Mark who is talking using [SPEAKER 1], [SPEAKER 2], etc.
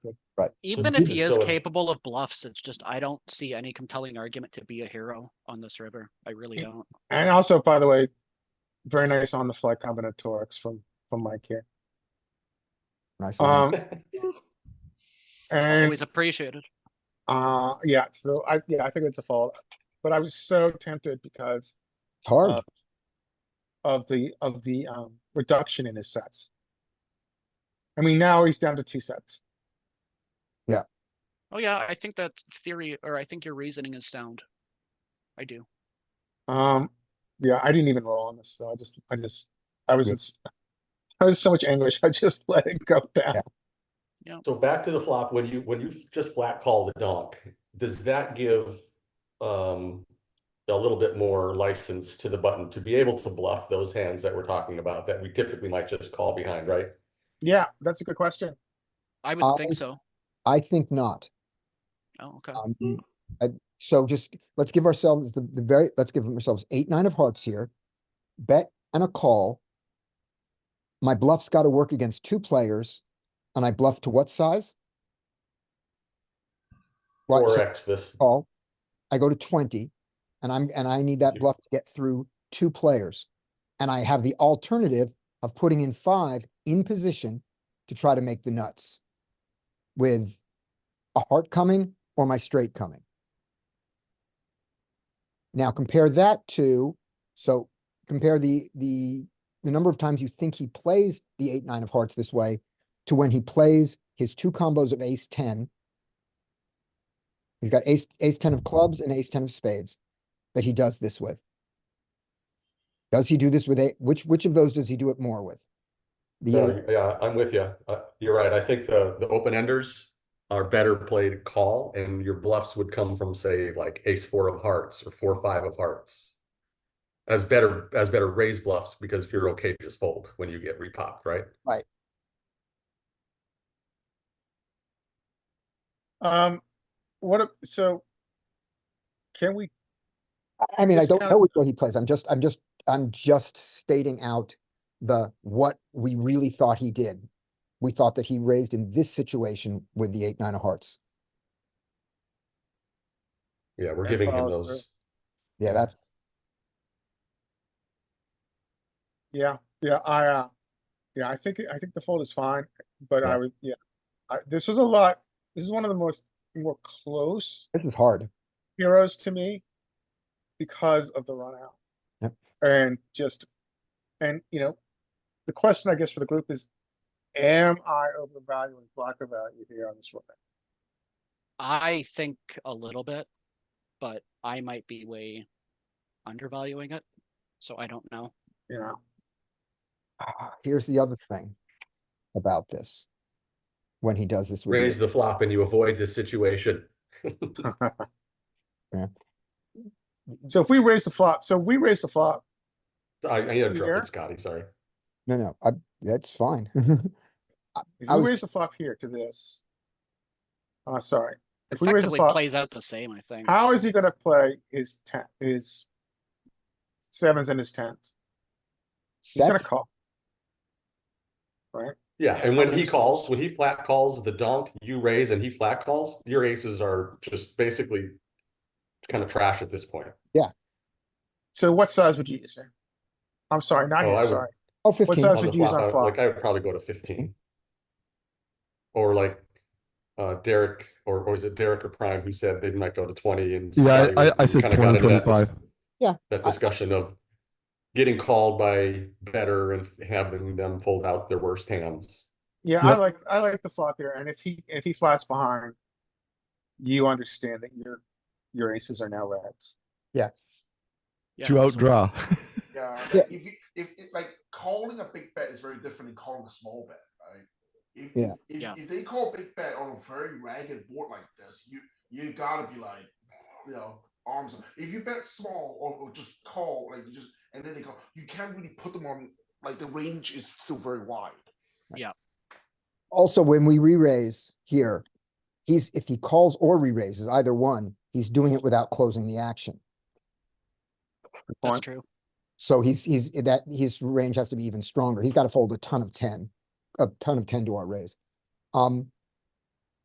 [SPEAKER 1] Right.
[SPEAKER 2] Even if he is
[SPEAKER 3] capable.
[SPEAKER 2] capable of bluffs, it's just I don't see any compelling argument to be a hero on this river. I really
[SPEAKER 4] Yeah.
[SPEAKER 2] don't.
[SPEAKER 4] And also, by the way, very nice on the fly combinatorics from, from Mike here.
[SPEAKER 1] Nice. one.
[SPEAKER 4] Um, and,
[SPEAKER 2] Always appreciated.
[SPEAKER 4] uh, yeah, so I, yeah, I think it's a fold, but I was so tempted because
[SPEAKER 1] It's hard.
[SPEAKER 4] uh, of the, of the, um, reduction in his sets. I mean, now he's down to two sets.
[SPEAKER 2] Oh yeah, I think that theory or I think your reasoning is sound. I do.
[SPEAKER 4] Um, yeah, I didn't even roll on this, so I just, I just, I was,
[SPEAKER 1] Yeah.
[SPEAKER 4] in s- I was in so much anguish, I just let it go down.
[SPEAKER 3] So back to the flop, when you, when you just flat call the donk, does that give um a little bit more license to the button to be able to bluff those hands that we're talking about that we typically might just call behind, right?
[SPEAKER 4] Yeah, that's a good question.
[SPEAKER 2] I would think
[SPEAKER 1] I-
[SPEAKER 4] Um,
[SPEAKER 2] so.
[SPEAKER 1] I think not.
[SPEAKER 2] Oh, okay.
[SPEAKER 1] Um, I- so just, let's give ourselves the, the very, let's give ourselves eight, nine of hearts here. Bet and a call. My bluff's gotta work against two players, and I bluff to what size? Right,
[SPEAKER 3] Four
[SPEAKER 1] so
[SPEAKER 3] X this,
[SPEAKER 1] call, I go to twenty, and I'm, and I need that
[SPEAKER 3] You-
[SPEAKER 1] bluff to get through two players. And I have the alternative of putting in five in position to try to make the nuts. With a heart coming or my straight coming. Now compare that to, so compare the, the, the number of times you think he plays the eight, nine of hearts this way to when he plays his two combos of ace ten. He's got ace, ace ten of clubs and ace ten of spades that he does this with. Does he do this with a, which, which of those does he do it more with? The, eight-
[SPEAKER 3] No, yeah, I'm with you. Uh, you're right. I think the, the open enders are better played call and your bluffs would come from say like ace four of hearts or four, five of hearts. As better, as better raise bluffs because you're okay to just fold when you get repopped, right?
[SPEAKER 4] Um, what, a- so can we
[SPEAKER 1] I- I mean, I
[SPEAKER 4] Just
[SPEAKER 1] don't
[SPEAKER 4] kinda-
[SPEAKER 1] know which way he plays. I'm just, I'm just, I'm just stating out the, what we really thought he did. We thought that he raised in this situation with the eight, nine of hearts.
[SPEAKER 3] Yeah, we're
[SPEAKER 4] That
[SPEAKER 3] giving him
[SPEAKER 4] follows through.
[SPEAKER 3] those.
[SPEAKER 1] Yeah, that's,
[SPEAKER 4] Yeah, yeah, I, uh, yeah, I think, I think the fold is fine, but
[SPEAKER 1] Yeah.
[SPEAKER 4] I would, yeah. I, this was a lot, this is one of the most, more close
[SPEAKER 1] this is hard.
[SPEAKER 4] heroes to me because of the run out.
[SPEAKER 1] Yep.
[SPEAKER 4] And just, and you know, the question I guess for the group is, am I overvaluing blocker value here on this one?
[SPEAKER 2] I think a little bit, but I might be way undervaluing it. So I don't know.
[SPEAKER 4] You know,
[SPEAKER 1] Ah, Here's the other thing about this. When he does this
[SPEAKER 3] Raise
[SPEAKER 1] with, the-
[SPEAKER 3] the flop and you avoid the situation.
[SPEAKER 4] so if we raise the flop, so we raise the flop,
[SPEAKER 3] I, I
[SPEAKER 4] Here?
[SPEAKER 3] interrupted Scotty, sorry.
[SPEAKER 1] no, no, I, that's fine. Oh,
[SPEAKER 4] if
[SPEAKER 1] I
[SPEAKER 4] we
[SPEAKER 1] was-
[SPEAKER 4] raise the flop here to this. Uh, sorry, if we raise the
[SPEAKER 2] Effectively
[SPEAKER 4] flop.
[SPEAKER 2] plays out the same, I think.
[SPEAKER 4] How is he gonna play his ten, his sevens and his tens? He's gonna
[SPEAKER 1] Sets,
[SPEAKER 4] call.
[SPEAKER 3] Yeah,
[SPEAKER 2] Yeah,
[SPEAKER 3] and when he
[SPEAKER 2] problems.
[SPEAKER 3] calls, when he flat calls the donk, you raise and he flat calls, your aces are just basically kind of trash at this point.
[SPEAKER 4] So what size would you use here? I'm sorry, not
[SPEAKER 3] Oh,
[SPEAKER 4] here,
[SPEAKER 3] I
[SPEAKER 4] I'm
[SPEAKER 3] would-
[SPEAKER 4] sorry.
[SPEAKER 1] oh, fifteen,
[SPEAKER 4] size
[SPEAKER 3] On
[SPEAKER 4] would
[SPEAKER 3] the
[SPEAKER 4] you use
[SPEAKER 3] flop,
[SPEAKER 4] on
[SPEAKER 3] I-
[SPEAKER 4] flop?
[SPEAKER 3] Like I would probably go to fifteen. Or like, uh, Derek, or, or is it Derek or Prime who said they might go to twenty and.
[SPEAKER 5] Yeah,
[SPEAKER 3] Scotty
[SPEAKER 5] I, I, I
[SPEAKER 3] was-
[SPEAKER 5] said
[SPEAKER 3] kinda got
[SPEAKER 5] 20,
[SPEAKER 3] into that dis-
[SPEAKER 5] 25.
[SPEAKER 3] That
[SPEAKER 1] I-
[SPEAKER 3] discussion of getting called by better and having them fold out their worst hands.
[SPEAKER 4] Yeah, I
[SPEAKER 5] Yep.
[SPEAKER 4] like, I like the flop here, and if he, if he flats behind. You understand that your, your aces are now reds.
[SPEAKER 1] yeah,
[SPEAKER 2] Yeah,
[SPEAKER 5] to
[SPEAKER 2] so-
[SPEAKER 5] outdraw.
[SPEAKER 6] Yeah, like,
[SPEAKER 1] Yeah.
[SPEAKER 6] if, you- if if like calling a big bet is very different than calling a small bet, right? If,
[SPEAKER 1] Yeah.
[SPEAKER 6] If,
[SPEAKER 2] Yeah.
[SPEAKER 6] if they call a big bet on a very ragged board like this, you you gotta be like, you know, arms. up. If you bet small or, or just call, like you just and then they go, you can't really put them on. Like the range is still very wide.
[SPEAKER 1] Also, when we re-raise here, he's, if he calls or re-raises, either one, he's doing it without closing the action.
[SPEAKER 2] That's
[SPEAKER 4] Fine.
[SPEAKER 2] true.
[SPEAKER 1] So he's, he's, that, his range has to be even stronger. He's got to fold a ton of ten, a ton of ten to our raise. Um,